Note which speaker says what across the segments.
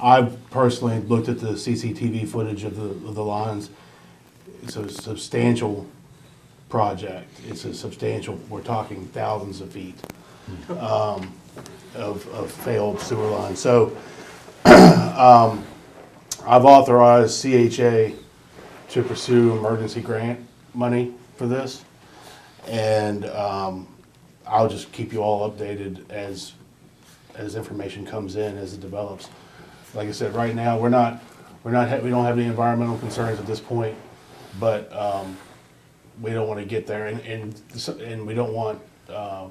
Speaker 1: I've personally looked at the CCTV footage of the, of the lines. It's a substantial project. It's a substantial, we're talking thousands of feet um, of, of failed sewer lines. So um, I've authorized CHA to pursue emergency grant money for this. And um, I'll just keep you all updated as, as information comes in, as it develops. Like I said, right now, we're not, we're not, ha- we don't have any environmental concerns at this point, but um, we don't want to get there and, and, s- and we don't want, uh,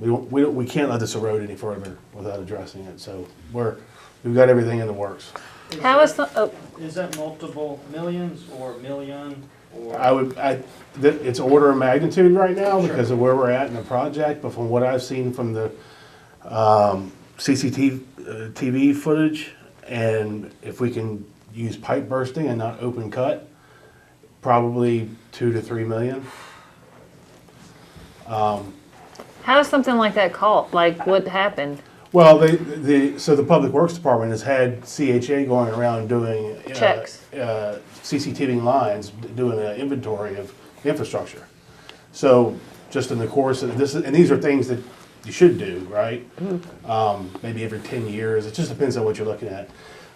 Speaker 1: we don't, we don't, we can't let this erode any further without addressing it. So we're, we've got everything in the works.
Speaker 2: Is
Speaker 3: How
Speaker 2: that-
Speaker 3: is the, oh,
Speaker 2: Is that multiple millions or a million or?
Speaker 1: I would, I, th it's order of magnitude right now because of where we're at in the project, but from what I've seen from the, um, CCTV, uh, TV footage, and if we can use pipe bursting and not open cut, probably two to three million.
Speaker 3: how is something like that caught? Like, what happened?
Speaker 1: Well, they, the, so the Public Works Department has had CHA going around doing. uh,
Speaker 3: Checks.
Speaker 1: Uh, CCTV lines, d- doing an inventory of infrastructure. So just in the course, of this, and these are things that you should do, right? Um, maybe every ten years, it just depends on what you're looking at.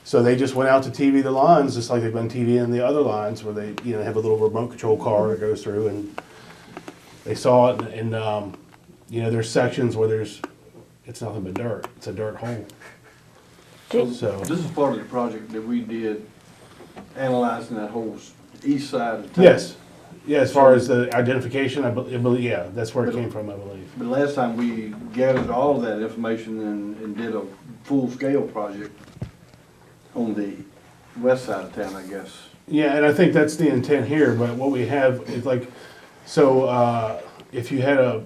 Speaker 1: So they just went out to TV the lines, just like they've been TVing the other lines, where they, you know, have a little remote control car that goes through and they saw it and, and um, you know, there's sections where there's, it's nothing but dirt. It's a dirt hole. So,
Speaker 4: This is part of the project that we did analyzing that whole s- east side of town.
Speaker 1: yes. Yeah, as far as the identification, I believe, yeah, that's where it came from, I believe.
Speaker 4: But last time we gathered all that information and, and did a full-scale project on the west side of town, I guess.
Speaker 1: Yeah, and I think that's the intent here, but what we have is like, so, uh, if you had a,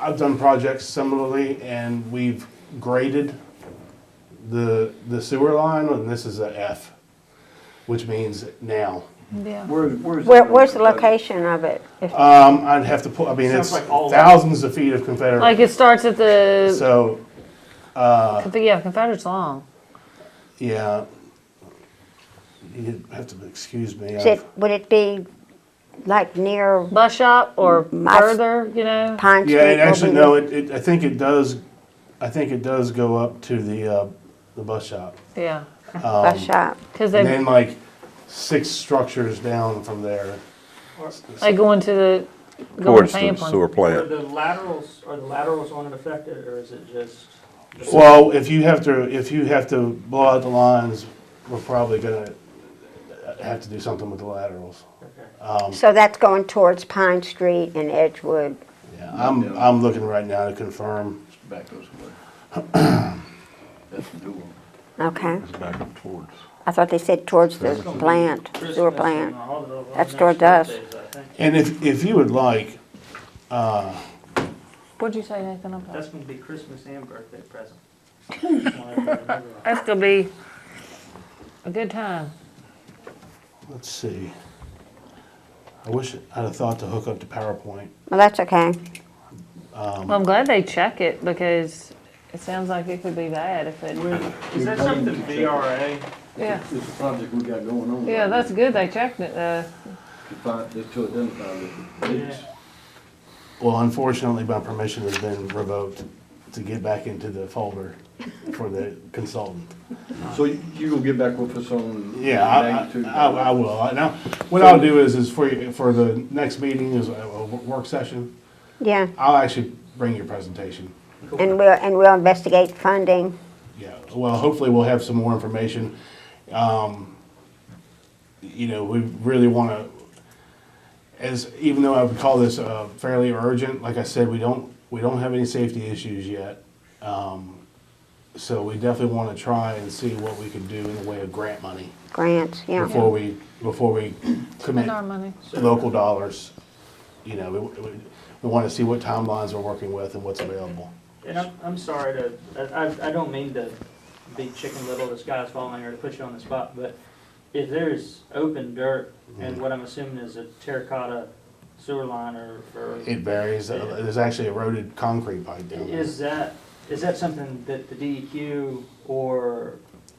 Speaker 1: I've done projects similarly, and we've graded the, the sewer line, and this is a F, which means now.
Speaker 3: Yeah.
Speaker 4: Where, where's?
Speaker 5: Where, where's the location of it? If-
Speaker 1: Um, I'd have to pull, I mean, it's
Speaker 2: Sounds like all-
Speaker 1: thousands of feet of Confederate.
Speaker 3: Like, it starts at the,
Speaker 1: So,
Speaker 3: Conf- yeah, Confederate's long.
Speaker 1: yeah, you have to excuse me.
Speaker 5: Is
Speaker 1: I've-
Speaker 5: it, would it be like near
Speaker 3: Bus shop or
Speaker 1: Mm,
Speaker 5: My-
Speaker 3: further, you know?
Speaker 5: Pine Street?
Speaker 1: Yeah, it
Speaker 5: will
Speaker 1: actually,
Speaker 5: be-
Speaker 1: no, it, it, I think it does, I think it does go up to the, uh, the bus shop.
Speaker 3: Yeah.
Speaker 1: um,
Speaker 5: Bus shop.
Speaker 3: Because
Speaker 1: And
Speaker 3: they,
Speaker 1: then like six structures down from there.
Speaker 2: Or
Speaker 3: they go into the, go
Speaker 6: towards
Speaker 3: into
Speaker 6: the sewer
Speaker 3: Pamplin.
Speaker 2: are
Speaker 6: plant.
Speaker 2: the laterals, are the laterals on it affected or is it just?
Speaker 1: Well, if you have to, if you have to blow out the lines, we're probably gonna have to do something with the laterals.
Speaker 2: Okay.
Speaker 1: um,
Speaker 5: So that's going towards Pine Street and Edgewood.
Speaker 1: Yeah, I'm, I'm looking right now to confirm.
Speaker 4: Back those way. That's the door.
Speaker 5: Okay.
Speaker 6: It's back up towards.
Speaker 5: I thought they said towards the plant, sewer
Speaker 2: Christmas and
Speaker 5: plant.
Speaker 2: all the- all the
Speaker 5: That's
Speaker 2: next
Speaker 5: towards us.
Speaker 2: birthdays, I think.
Speaker 1: And if, if you would like,
Speaker 3: What'd you say, Nathan, about?
Speaker 2: That's gonna be Christmas and birthday present. Just wanna let everybody know that.
Speaker 3: That's gonna be a good time.
Speaker 1: let's see. I wish I'd have thought to hook up to PowerPoint.
Speaker 5: Well, that's okay.
Speaker 1: Um,
Speaker 3: Well, I'm glad they check it because it sounds like it could be bad if it,
Speaker 2: Is that something VRA?
Speaker 3: yeah.
Speaker 4: It's a project we got going on.
Speaker 3: Yeah, that's good, they checked it, uh,
Speaker 4: To find, just to identify the leaks.
Speaker 2: Yeah.
Speaker 1: Well, unfortunately, my permission has been revoked to get back into the folder for the consultant.
Speaker 4: So you, you gonna get back with us on?
Speaker 1: Yeah, I,
Speaker 4: magnitude?
Speaker 1: I- I- I will. Now, what I'll do is, is for, you- for the next meeting is a a work session,
Speaker 5: Yeah.
Speaker 1: I'll actually bring your presentation.
Speaker 5: And we'll, and we'll investigate funding.
Speaker 1: Yeah, well, hopefully we'll have some more information. Um, You know, we really want to, as, even though I would call this uh, fairly urgent, like I said, we don't, we don't have any safety issues yet. Um, So we definitely want to try and see what we can do in the way of grant money
Speaker 5: Grants, yeah.
Speaker 1: before we, before we commit
Speaker 3: our money.
Speaker 1: local dollars. You know, we, we, we want to see what timelines we're working with and what's available.
Speaker 2: And I'm, I'm sorry to, I, I- I don't mean to be chicken little, the sky's falling, or to put you on the spot, but if there's open dirt,
Speaker 1: Mm-hmm.
Speaker 2: and what I'm assuming is a terracotta sewer line or, or,
Speaker 1: It varies. Uh, There's actually eroded concrete pipe down there.
Speaker 2: is that, is that something that the DEQ E or